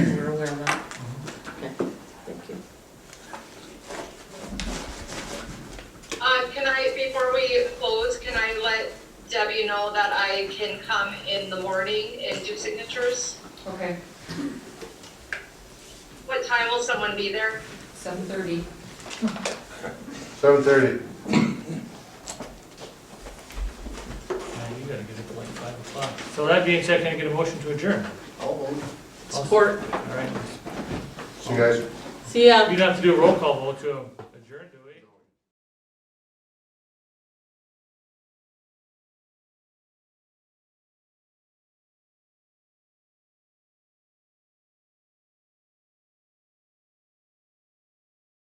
Um, Debbie know that I can come in the morning and do signatures? Okay, What time will someone be there? seven thirty. Seven thirty. Now you gotta get up at like five o'clock. So that being said, can I get a motion to adjourn? Support. All right. See you guys. See ya. You'd have to do a roll call vote to